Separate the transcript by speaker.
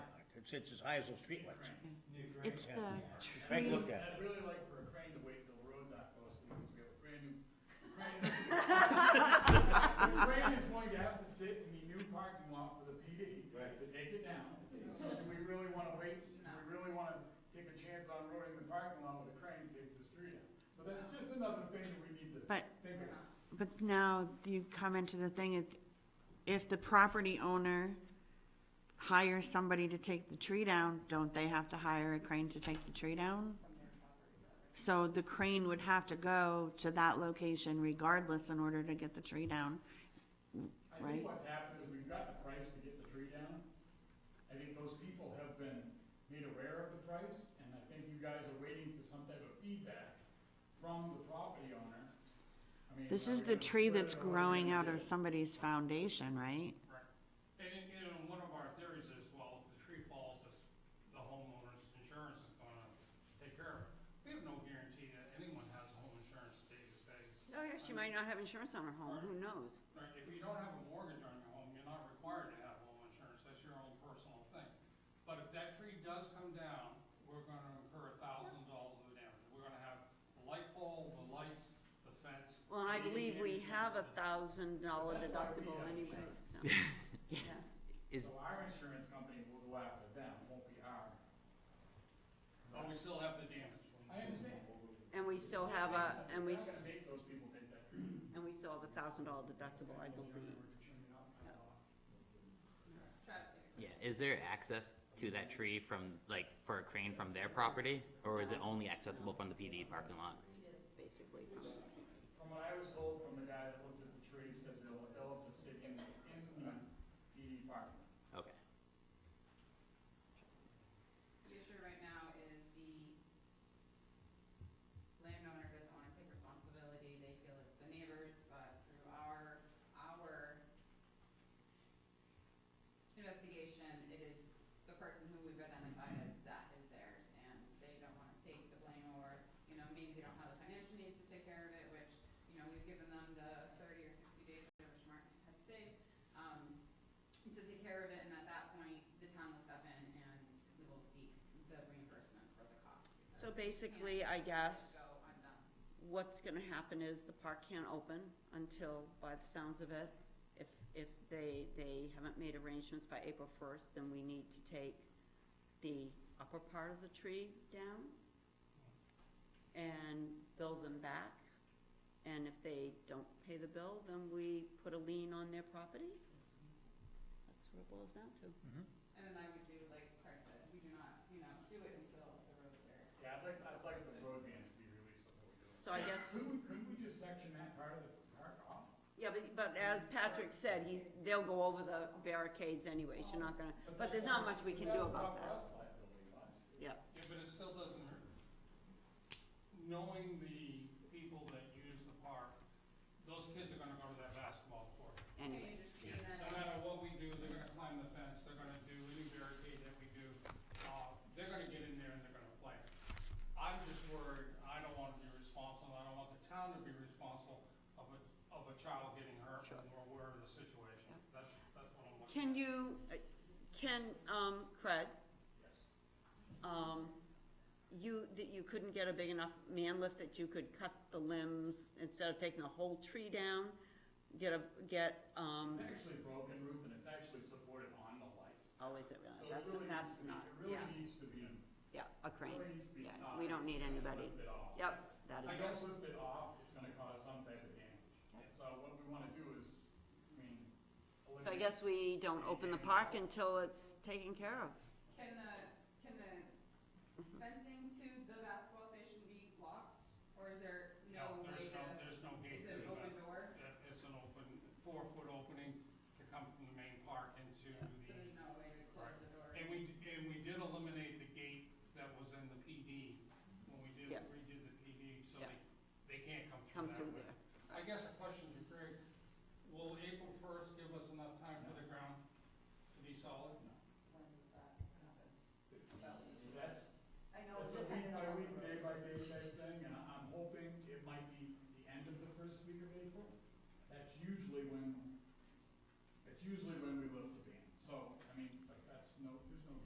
Speaker 1: It sits as high as those streetlights.
Speaker 2: New grant.
Speaker 3: It's the
Speaker 1: Take a
Speaker 3: tree,
Speaker 1: look at it.
Speaker 2: I'd really like for a crane to wait till the roads are closed, because we have a brand new crane. The crane is going to have to sit in the new parking lot for the PD to take it down. So do we really wanna wait, do we really wanna take a chance on roading the parking lot with a crane to take the street out? So that's just another thing that we need to
Speaker 3: but,
Speaker 2: think about.
Speaker 3: but now you come into the thing, if- if the property owner hires somebody to take the tree down, don't they have to hire a crane to take the tree down? So the crane would have to go to that location regardless in order to get the tree down.
Speaker 2: I
Speaker 3: Right.
Speaker 2: think what's happened is we've got the price to get the tree down. I think those people have been made aware of the price, and I think you guys are waiting for some type of feedback from the property owner. I mean,
Speaker 3: This
Speaker 2: are
Speaker 3: is
Speaker 2: we
Speaker 3: the
Speaker 2: gonna
Speaker 3: tree
Speaker 2: split it
Speaker 3: that's
Speaker 2: or what are we
Speaker 3: growing
Speaker 2: gonna
Speaker 3: out of
Speaker 2: do?
Speaker 3: somebody's foundation, right?
Speaker 4: And, and, you know, one of our theories is, well, if the tree falls, it's, the homeowner's insurance is gonna take care of it. We have no guarantee that anyone has home insurance day to day.
Speaker 3: Oh, yeah, she might not have insurance on her home, who knows?
Speaker 4: Right, if you don't have a mortgage on your home, you're not required to have home insurance, that's your own personal thing. But if that tree does come down, we're gonna incur a thousand dollars of damage. We're gonna have the light pole, the lights, the fence.
Speaker 5: Well, and I believe we have a
Speaker 4: thousand.
Speaker 5: thousand dollar deductible anyways, so. Yeah.
Speaker 6: Is,
Speaker 2: So our insurance company will go after them, won't be our.
Speaker 4: But we still have the damage.
Speaker 2: I understand.
Speaker 5: And we still have a, and we,
Speaker 2: We're not
Speaker 5: s-
Speaker 2: gonna make those people take that tree.
Speaker 5: and we still have a thousand dollar deductible, I believe.
Speaker 6: yeah, is there access to that tree from, like, for a crane from their property? Or is it only accessible from the PD parking lot?
Speaker 5: It's basically from,
Speaker 2: From what I was told from the guy that looked at the tree, says they'll, they'll have to sit in, in the PD parking. lot.
Speaker 6: Okay.
Speaker 7: The issue right now is the landowner doesn't wanna take responsibility, they feel it's the neighbors, but through our, our investigation, it is the person who we've identified as that is theirs, and they don't wanna take the blame, or, you know, maybe they don't have the financial needs to take care of it, which, you know, we've given them the thirty or sixty days, which Mark had stated, um, to take care of it, and at that point, the town will step in and we will seek the reimbursement for the cost.
Speaker 5: so
Speaker 7: because we
Speaker 5: basically,
Speaker 7: can't
Speaker 5: I
Speaker 7: just
Speaker 5: guess,
Speaker 7: Go, I'm done.
Speaker 5: what's gonna happen is the park can't open until, by the sounds of it, if, if they, they haven't made arrangements by April first, then we need to take the upper part of the tree down and bill them back. And if they don't pay the bill, then we put a lien on their property. That's what it boils down to.
Speaker 7: And then I would do like Craig said, we do not, you know, do it until the roads are.
Speaker 2: Yeah, I'd like, I'd like the road bands to be released before we do it.
Speaker 5: So I guess,
Speaker 2: Couldn't we, couldn't we just section that part of the park off?
Speaker 5: yeah, but, but as Patrick said, he's, they'll go over the barricades anyways, you're not gonna, but there's not much we can do about that.
Speaker 2: That's liability, lots.
Speaker 5: Yeah,
Speaker 4: Yeah, but it still doesn't hurt. Knowing the people that use the park, those kids are gonna go to that basketball court.
Speaker 5: anyways.
Speaker 7: And you just see
Speaker 4: No
Speaker 7: that-
Speaker 4: matter what we do, they're gonna climb the fence, they're gonna do any barricade that we do, uh, they're gonna get in there and they're gonna play. I'm just worried, I don't wanna be responsible, I don't want the town to be responsible of a, of a child getting hurt or wherever the situation, that's, that's what I'm looking at.
Speaker 5: Can you, uh, can, um, Craig? Um, you, that you couldn't get a big enough man lift that you could cut the limbs instead of taking the whole tree down? Get a, get, um,
Speaker 2: It's actually broken roof and it's actually supported on the light.
Speaker 5: oh, is it really,
Speaker 2: So it
Speaker 5: that's,
Speaker 2: really needs
Speaker 5: that's
Speaker 2: to be-
Speaker 5: not,
Speaker 2: It
Speaker 5: yeah,
Speaker 2: really needs to be,
Speaker 5: yeah, a crane,
Speaker 2: really needs to be
Speaker 5: yeah,
Speaker 2: tied.
Speaker 5: we don't need
Speaker 2: and
Speaker 5: anybody.
Speaker 2: Lift it off.
Speaker 5: Yep, that
Speaker 2: I
Speaker 5: is,
Speaker 2: guess lift it off, it's gonna cause some type of damage. So what we wanna do is, I mean.
Speaker 5: so I
Speaker 2: eliminate-
Speaker 5: guess we don't open the park until it's taken care of.
Speaker 7: Can the, can the fencing to the basketball station be locked, or is there no way
Speaker 4: there's no,
Speaker 7: to,
Speaker 4: there's no gate
Speaker 7: is
Speaker 4: to
Speaker 7: it
Speaker 4: the
Speaker 7: open door?
Speaker 4: that it's an open, four-foot opening to come from the main park into
Speaker 7: So
Speaker 4: the,
Speaker 7: there's no way to close
Speaker 4: Right.
Speaker 7: the door?
Speaker 4: and we, and we did eliminate the gate that was in the PD when we did,
Speaker 5: Yeah.
Speaker 4: redid the PD, so
Speaker 5: Yeah.
Speaker 4: they, they can't come
Speaker 5: Come
Speaker 4: through that way.
Speaker 5: through there.
Speaker 4: I guess a question to Greg, will April first give us enough time for the ground to be solid?
Speaker 7: When does that happen?
Speaker 2: That's,
Speaker 7: I know.
Speaker 2: It's a week
Speaker 7: it's dependent
Speaker 2: by
Speaker 7: on
Speaker 2: week,
Speaker 7: the
Speaker 2: day
Speaker 7: road.
Speaker 2: by day type thing, and I- I'm hoping it might be the end of the first week of April. That's usually when, that's usually when we lift the